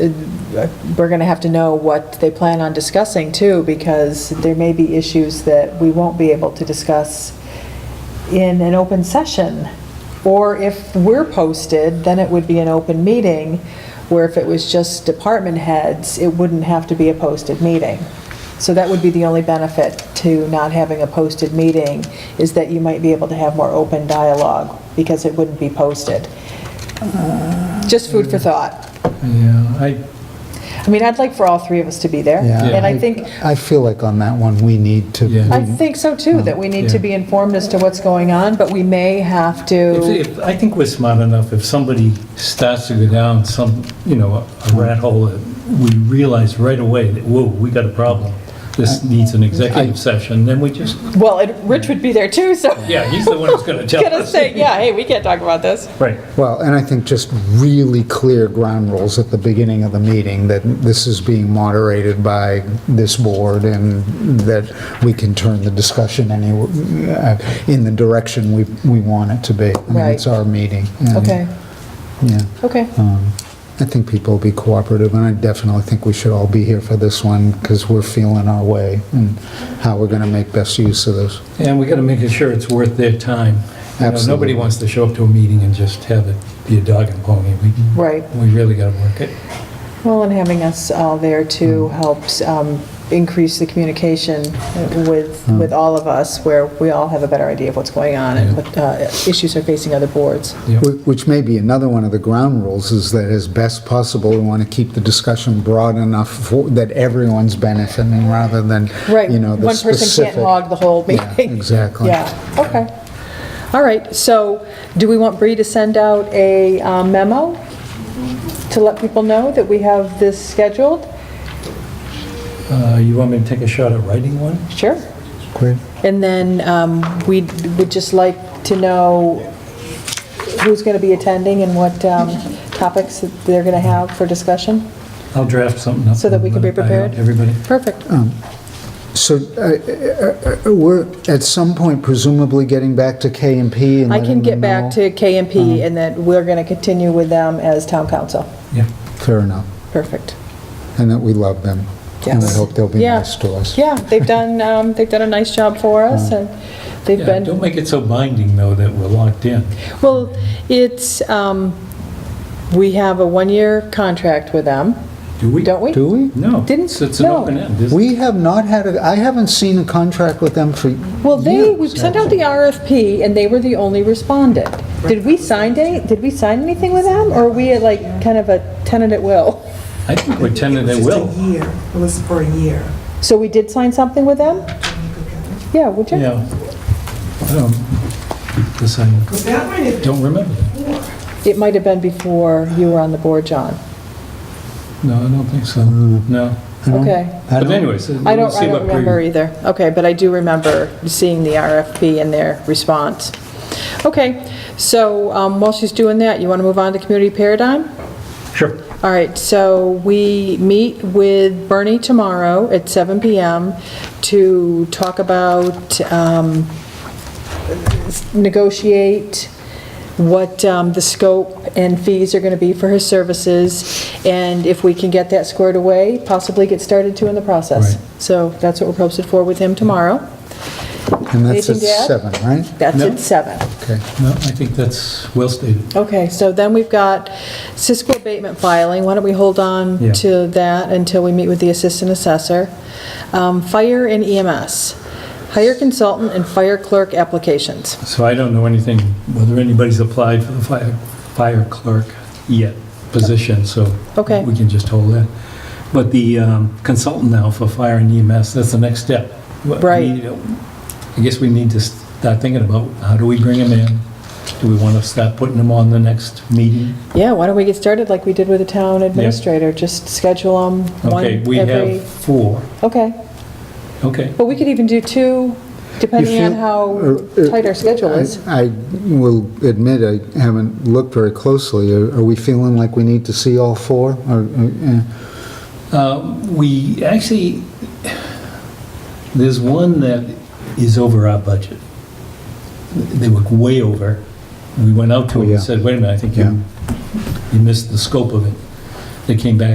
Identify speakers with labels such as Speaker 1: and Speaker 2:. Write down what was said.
Speaker 1: we're going to have to know what they plan on discussing too, because there may be issues that we won't be able to discuss in an open session. Or if we're posted, then it would be an open meeting, where if it was just department heads, it wouldn't have to be a posted meeting. So that would be the only benefit to not having a posted meeting, is that you might be able to have more open dialogue, because it wouldn't be posted. Just food for thought.
Speaker 2: Yeah, I,
Speaker 1: I mean, I'd like for all three of us to be there.
Speaker 3: Yeah,
Speaker 1: And I think,
Speaker 3: I feel like on that one, we need to,
Speaker 2: Yeah.
Speaker 1: I think so too, that we need to
Speaker 2: Yeah.
Speaker 1: be informed as to what's going on, but we may have to,
Speaker 2: if- if- I think we're smart enough, if somebody starts to go down some, you know, a rat hole, that we realize right away that, whoa, we got a problem. This needs an executive session, then we just,
Speaker 1: well, and Rich would be there too, so.
Speaker 2: yeah, he's the one who's going to tell
Speaker 1: Gonna
Speaker 2: us.
Speaker 1: say, yeah, hey, we can't talk about this.
Speaker 2: Right.
Speaker 3: well, and I think just really clear ground rules at the beginning of the meeting, that this is being moderated by this board, and that we can turn the discussion any, uh, in the direction we, we want it to be. I mean,
Speaker 1: Right.
Speaker 3: It's our meeting. and,
Speaker 1: Okay,
Speaker 3: Yeah.
Speaker 1: okay.
Speaker 3: Um, I think people will be cooperative, and I definitely think we should all be here for this one, because we're feeling our way and how we're going to make best use of this.
Speaker 2: And we got to make sure it's worth their time. You know,
Speaker 3: Absolutely.
Speaker 2: Nobody wants to show up to a meeting and just have it be a dog and pony. We
Speaker 1: Right.
Speaker 2: we really got to work it.
Speaker 1: Well, and having us all there too
Speaker 2: Hmm.
Speaker 1: helps um, increase the communication with, with all of us, where we all have a better idea of what's going on and
Speaker 2: Hmm. Yeah.
Speaker 1: what uh, issues are facing other boards.
Speaker 2: Yep.
Speaker 3: Wh- Which may be another one of the ground rules, is that as best possible, we want to keep the discussion broad enough for- that everyone's benefiting, rather than,
Speaker 1: Right,
Speaker 3: you know, the
Speaker 1: one person
Speaker 3: specific...
Speaker 1: can't hog the whole
Speaker 3: Yeah,
Speaker 1: meeting.
Speaker 3: exactly.
Speaker 1: Yeah, okay. All right, so do we want Bree to send out a um, memo to let people know that we have this scheduled?
Speaker 2: Uh, You want me to take a shot at writing one?
Speaker 1: Sure.
Speaker 3: Great.
Speaker 1: And then um, we would just like to know who's going to be attending and what um, topics that they're going to have for discussion?
Speaker 2: I'll draft something up.
Speaker 1: So that we can be
Speaker 2: and let it by
Speaker 1: prepared?
Speaker 2: Everybody.
Speaker 1: Perfect.
Speaker 3: So uh, uh, uh, we're, at some point presumably getting back to K and P and
Speaker 1: I can
Speaker 3: letting
Speaker 1: get
Speaker 3: them
Speaker 1: back
Speaker 3: know? Uh-huh.
Speaker 1: to KMP and then we're going to continue with them as town council.
Speaker 2: Yeah.
Speaker 3: Fair enough.
Speaker 1: Perfect.
Speaker 3: And that we love them. And we
Speaker 1: Yes.
Speaker 3: hope they'll be
Speaker 1: Yeah.
Speaker 3: nice to us.
Speaker 1: Yeah, they've done, um, they've done a nice job for us and they've
Speaker 2: Uh-huh. Yeah,
Speaker 1: been.
Speaker 2: don't make it so binding, though, that we're locked in.
Speaker 1: Well, it's, um, we have a one-year contract with them,
Speaker 2: Do we?
Speaker 1: don't we?
Speaker 3: Do we?
Speaker 2: No.
Speaker 1: Didn't-
Speaker 2: It's it's an
Speaker 1: no.
Speaker 2: open end, isn't it?
Speaker 3: We have not had, a. I haven't seen a contract with them for
Speaker 1: Well, they, we
Speaker 3: years.
Speaker 1: sent out the RFP, and they were the only respondent. Did we sign any, did we sign anything with them, or are we at, like kind of a tenant at will?
Speaker 2: I think we're tending they
Speaker 4: It was
Speaker 2: will.
Speaker 4: just a year, it was for a year.
Speaker 1: So we did sign something with them? Yeah, would you?
Speaker 2: Yeah. I don't, this I
Speaker 4: But that might have
Speaker 2: don't remember. that.
Speaker 1: It might have been before you were on the board, John.
Speaker 2: No, I don't think so. Mm. No.
Speaker 1: Okay.
Speaker 3: I
Speaker 2: But
Speaker 3: don't-
Speaker 2: anyways,
Speaker 1: I
Speaker 2: we'll
Speaker 1: don't, I
Speaker 2: see
Speaker 1: don't
Speaker 2: what
Speaker 1: remember
Speaker 2: Bree...
Speaker 1: either. Okay, but I do remember seeing the RFP and their response. Okay, so um, while she's doing that, you want to move on to community paradigm?
Speaker 2: Sure.
Speaker 1: All right, so we meet with Bernie tomorrow at 7 PM to talk about, um, negotiate what um, the scope and fees are going to be for his services, and if we can get that squared away, possibly get started too in the process.
Speaker 2: Right.
Speaker 1: So that's what we're posted for with him tomorrow.
Speaker 3: And that's at
Speaker 1: Anything to add?
Speaker 3: seven, right?
Speaker 1: That's
Speaker 2: No.
Speaker 1: at 7.
Speaker 3: Okay.
Speaker 2: No, I think that's well stated.
Speaker 1: Okay, so then we've got Cisco abatement filing. Why don't we hold on
Speaker 2: Yeah.
Speaker 1: to that until we meet with the assistant assessor? Um, Fire and EMS, hire consultant and fire clerk applications.
Speaker 2: So I don't know anything, whether anybody's applied for the fire, fire clerk yet position, so.
Speaker 1: Okay.
Speaker 2: We can just hold that. But the um, consultant now for fire and EMS, that's the next step. What we
Speaker 1: Right.
Speaker 2: need- I guess we need to start thinking about, how do we bring them in? Do we want to start putting them on the next meeting?
Speaker 1: Yeah, why don't we get started like we did with the town administrator? Just schedule them one
Speaker 2: Okay, we
Speaker 1: every...
Speaker 2: have four.
Speaker 1: Okay,
Speaker 2: Okay,
Speaker 1: but we could even do two, depending on
Speaker 3: feel-
Speaker 1: how
Speaker 3: Uh, uh,
Speaker 1: tight our schedule is.
Speaker 3: I I will admit, I haven't looked very closely. Are are we feeling like we need to see all four? Or, uh, uh,
Speaker 2: we actually, there's one that is over our budget. They were way over. We went out to
Speaker 3: Oh,
Speaker 2: them
Speaker 3: yeah.
Speaker 2: and said, wait a minute, I think
Speaker 3: Yeah.
Speaker 2: you, you missed the scope of it. They came back